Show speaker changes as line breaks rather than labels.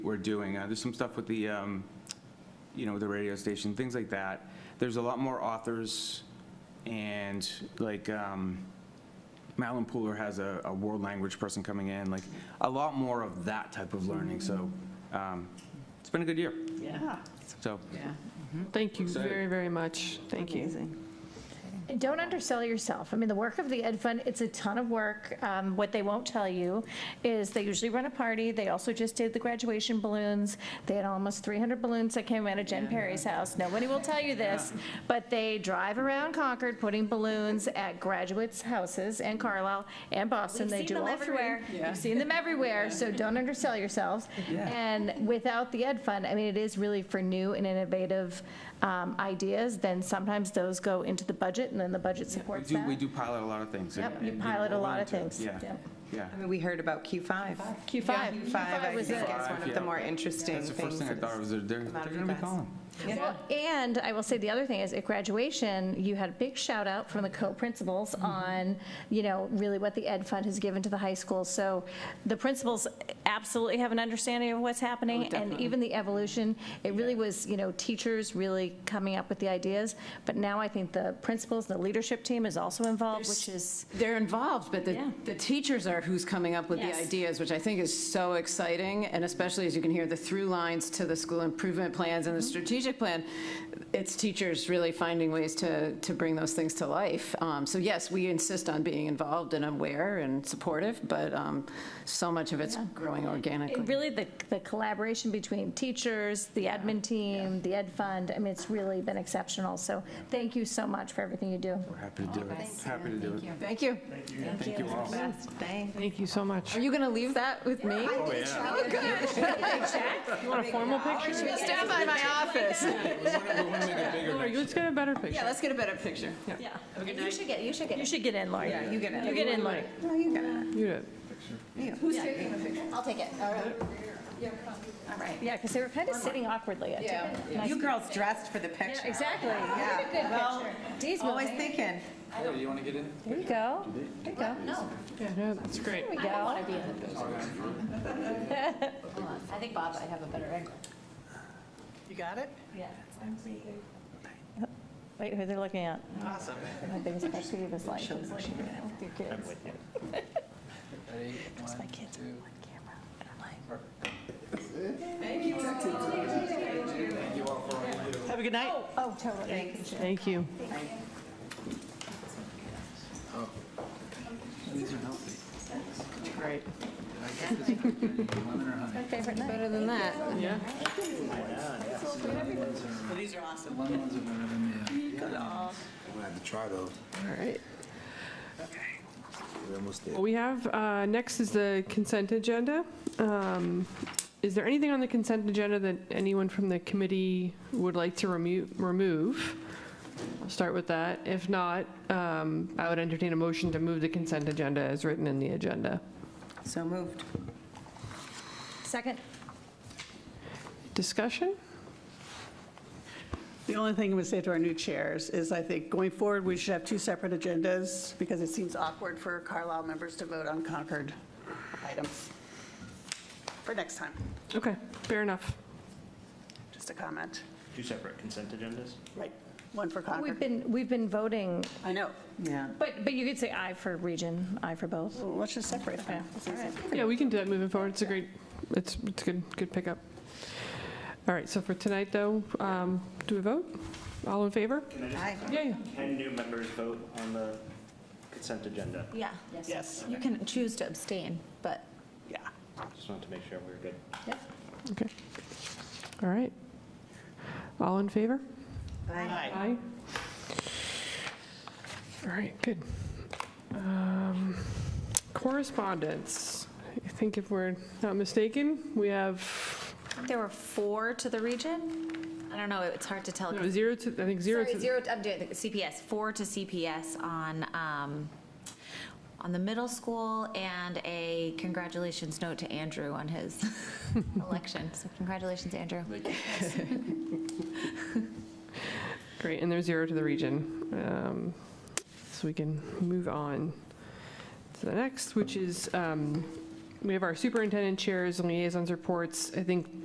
we're doing. Uh, There's some stuff with the, um, you know, the radio station, things like that. There's a lot more authors, and like, um, Madeline Pooler has a, a world language person coming in, like, a lot more of that type of learning, so um, it's been a good year,
Yeah.
so.
Yeah.
Mm-hmm.
Thank you
Excited.
very, very much. Thank you.
And don't undersell yourself. I mean, the work of the Ed Fund, it's a ton of work. Um, What they won't tell you is they usually run a party. They also just did the graduation balloons. They had almost 300 balloons that came out of Jen Perry's house. Nobody will tell you this, but they drive around Concord putting balloons at graduates' houses and Carlisle and Boston.
We've
They
seen
do
them
all three.
everywhere.
Yeah.
You've seen them everywhere, so don't undersell yourselves. And without the Ed Fund, I mean, it is really for new and innovative um, ideas, then sometimes those go into the budget, and then the budget
We
supports
do, we
that.
do pilot a lot of things. and-
Yep, you
and, know,
pilot a
we're
lot of
willing to-
things.
Yeah,
Yep.
yeah.
I mean, we heard about Q5.
Q5.
Q5, I
was
think,
it.
is one of the more interesting
That's
things.
the first thing I
that
thought,
is-
was they're, they're
come out of
going to be
you guys.
calling.
Well, And I will say, the other thing is, at graduation, you had a big shout out from the co-principals on, you know, really what the Ed Fund has given to the high school. So the principals absolutely have an understanding of what's happening, and even the evolution. It really was, you know, teachers really coming up with the ideas, but now I think the principals, the leadership team is also involved, which is,
They're involved, but the,
Yeah.
the teachers are who's coming up with the
Yes.
ideas, which I think is so exciting, and especially as you can hear the through lines to the school improvement plans
Mm-hmm.
and the strategic plan, it's teachers really finding ways to, to bring those things to life. Um, So yes, we insist on being involved and aware and supportive, but um, so much of it's growing organically.
it really the, the collaboration between teachers, the admin team, the Ed Fund, I mean, it's really been exceptional. So thank you so much for everything you do.
We're happy to do it, happy to do it.
Thank you.
Thank you all.
Thanks.
Thank you so much.
Are you going to leave that with me?
Oh,
You want a formal picture?
Stand by my office.
Or Let's get a better
Yeah,
picture.
let's get a better picture.
You should get, you should get. You should get in, Lori.
Yeah, you get it.
You get in, Lori.
No, you get it.
You did.
I'll take it. All right. Yeah, because they were kind of sitting awkwardly. I took it. Nice.
You girls dressed for the picture.
Exactly.
Yeah.
Good
Well,
picture. Dee's
Always
moving.
thinking.
There you go. There you go.
Yeah, that's great.
There we go.
I think Bob, I have a better angle.
You got it?
Wait, who they're looking at?
Awesome.
My biggest pet peeve is like, who's looking at your kids? Because my kids are on camera. and I'm like,
Have a good night.
Oh, totally.
Thank you.
Great.
My favorite night.
Better than that.
Yeah.
These are awesome.
Lemon ones are better than the, uh,
I'm gonna have to try those.
All right.
We're almost there.
Well, We have, uh, next is the consent agenda. Um, Is there anything on the consent agenda that anyone from the committee would like to remo- remove? I'll start with that. If not, um, I would entertain a motion to move the consent agenda as written in the agenda.
So moved.
Second?
Discussion?
The only thing I would say to our new chairs is I think going forward, we should have two separate agendas because it seems awkward for Carlisle members to vote on Concord items. For next time,
Okay, fair enough.
just a comment.
Two separate consent agendas?
Right, one for
We've
Concord.
been, we've been voting,
I know.
Yeah.
but, but you could say aye for region, aye for both.
Well, Let's just separate them. It's easy.
Yeah, we can do that moving forward. It's a great, it's, it's good, good pickup. All right, so for tonight, though, um, do we vote? All in favor?
Can I just-
Hi.
Yeah.
Can new members vote on the consent agenda?
Yeah.
Yes,
You can choose to abstain, but
yeah.
Just wanted to make sure we were good.
Okay. All right. All in favor?
Hi.
Aye. All right, good. Um, Correspondence. I think if we're not mistaken, we have
I think there were four to the region. I don't know, it's hard to tell.
no, zero to, I think zero
Sorry,
to,
zero, to- I'm doing the CPS, four to CPS on, um, on the middle school and a congratulations note to Andrew on his election. So congratulations, Andrew.
great, and there's zero to the region. Um, So we can move on to the next, which is um, we have our superintendent chairs and liaisons reports. I think